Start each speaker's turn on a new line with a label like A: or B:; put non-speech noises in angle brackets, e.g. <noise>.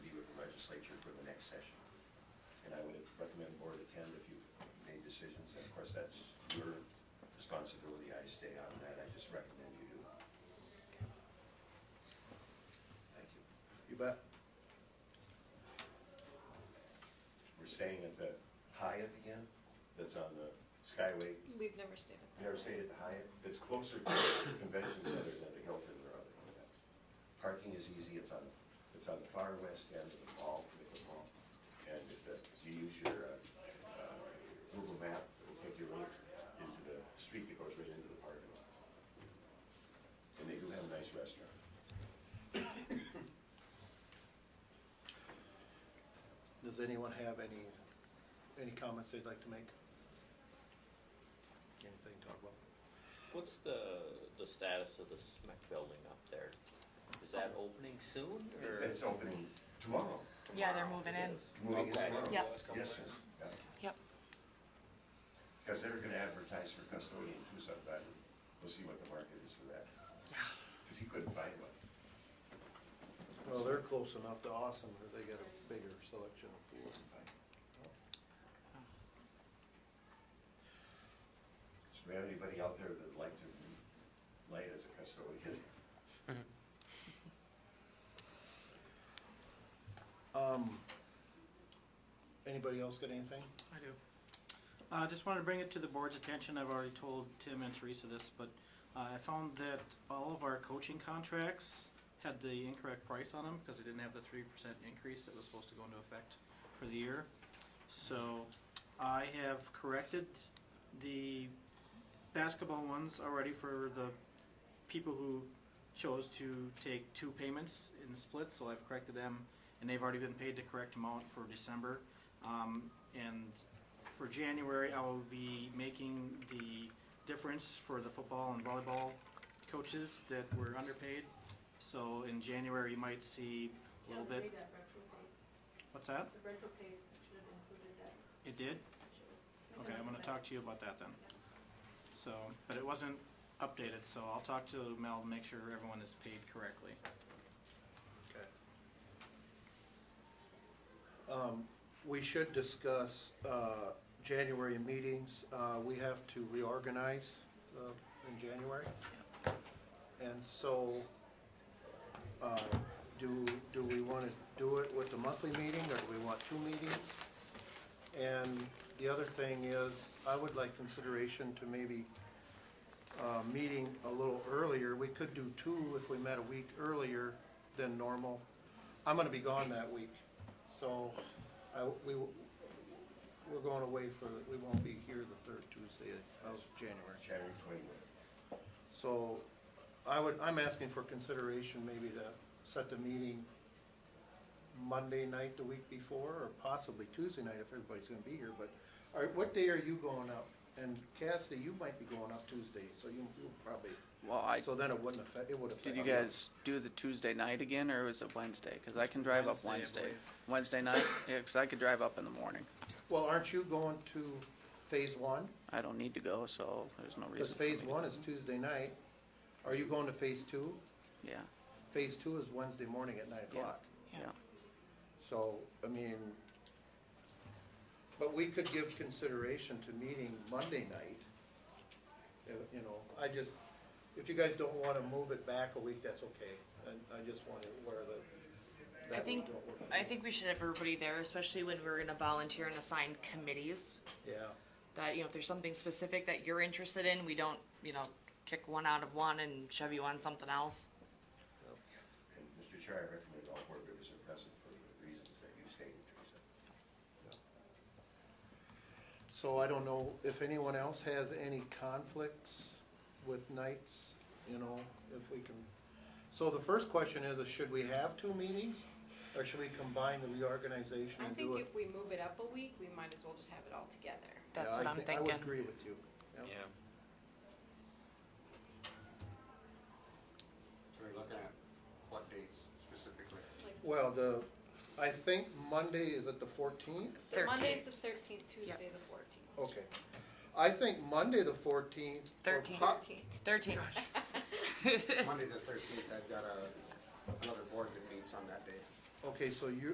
A: legislature for the next session. And I would recommend the board attend if you've made decisions, and of course, that's your responsibility, I stay on that, I just recommend you do. Thank you.
B: You bet.
A: We're staying at the Hyatt again, that's on the Skyway.
C: We've never stayed at
A: You never stayed at the Hyatt? It's closer to the convention center than the Hilton or other hotels. Parking is easy, it's on, it's on the far west end of the mall, the mall. And if the- if you use your uh, uh, Google map, it'll take you right into the street that goes right into the parking lot. And they do have a nice restaurant.
B: Does anyone have any, any comments they'd like to make? Anything to talk about?
D: What's the, the status of the SMEC building up there? Is that opening soon or?
A: It's opening tomorrow.
E: Yeah, they're
D: tomorrow?
E: moving in.
A: Moving in
D: Okay.
A: tomorrow.
E: Yep.
A: Yes, sir. Yeah.
E: Yep.
A: Because they're gonna advertise for custodian too sometime. We'll see what the market is for that. Because he couldn't find one.
B: Well, they're close enough to Awesome that they got a bigger selection of pools.
A: So we have anybody out there that'd like to be laid as a custodian? <laughs>
B: Um, anybody else got anything?
F: I do. I just wanted to bring it to the board's attention. I've already told Tim and Teresa this, but uh, I found that all of our coaching contracts had the incorrect price on them because they didn't have the three percent increase that was supposed to go into effect for the year. So I have corrected the basketball ones already for the people who chose to take two payments in split, so I've corrected them, and they've already been paid the correct amount for December. Um, and for January, I will be making the difference for the football and volleyball coaches that were underpaid. So in January, you might see a little bit.
C: that retro pay.
F: What's that?
C: The retro pay should have included that.
F: It did? Okay, I'm gonna talk to you about that then. So, but it wasn't updated, so I'll talk to Mel to make sure everyone is paid correctly.
B: Okay. Um, We should discuss uh, January meetings. Uh, We have to reorganize uh, in January. And so, uh, do, do we want to do it with the monthly meeting, or do we want two meetings? And the other thing is, I would like consideration to maybe uh, meeting a little earlier. We could do two if we met a week earlier than normal. I'm going to be gone that week, so I, we, we're going away for, we won't be here the third Tuesday of January.
A: January twenty-one.
B: So I would, I'm asking for consideration maybe to set the meeting Monday night the week before, or possibly Tuesday night if everybody's gonna be here, but, all right, what day are you going up? And Cassidy, you might be going up Tuesday, so you, you'll probably,
G: Well, I,
B: so then it wouldn't affect, it would affect.
G: did you guys do the Tuesday night again, or was it Wednesday? Because I can drive up
F: Wednesday, I
G: Wednesday.
F: believe.
G: Wednesday night, yeah, because I could drive up in the morning.
B: Well, aren't you going to phase one?
G: I don't need to go, so there's no reason
B: Because
G: for me
B: phase
G: to.
B: one is Tuesday night. Are you going to phase two?
G: Yeah,
B: Phase two is Wednesday morning at nine o'clock.
G: yeah.
B: So, I mean, but we could give consideration to meeting Monday night. Uh, You know, I just, if you guys don't want to move it back a week, that's okay. And I just want to where the,
E: I
B: that
E: think,
B: week don't work. for
E: I
B: me.
E: think we should have everybody there, especially when we're gonna volunteer and assign committees.
B: Yeah,
E: That, you know, if there's something specific that you're interested in, we don't, you know, kick one out of one and shove you on something else.
A: And Mr. Chair, I recommend all board members are present for the reasons that you stated, Teresa.
B: so I don't know if anyone else has any conflicts with nights, you know, if we can. So the first question is, should we have two meetings? Or should we combine the reorganization
C: I
B: and do
C: think
B: it?
C: if we move it up a week, we might as well just have it all together.
E: That's
B: Yeah, I
E: what I'm
B: thi-
E: thinking.
B: I would agree with you. Yep.
H: So you're looking at what dates specifically?
B: Well, the, I think Monday is at the fourteenth?
C: Monday's the thirteenth, Tuesday the fourteenth.
B: Okay. I think Monday the fourteenth.
E: Thirteenth. Thirteenth. <laughs>
H: Monday the thirteenth, I've got a, another board that meets on that day.
B: Okay, so you,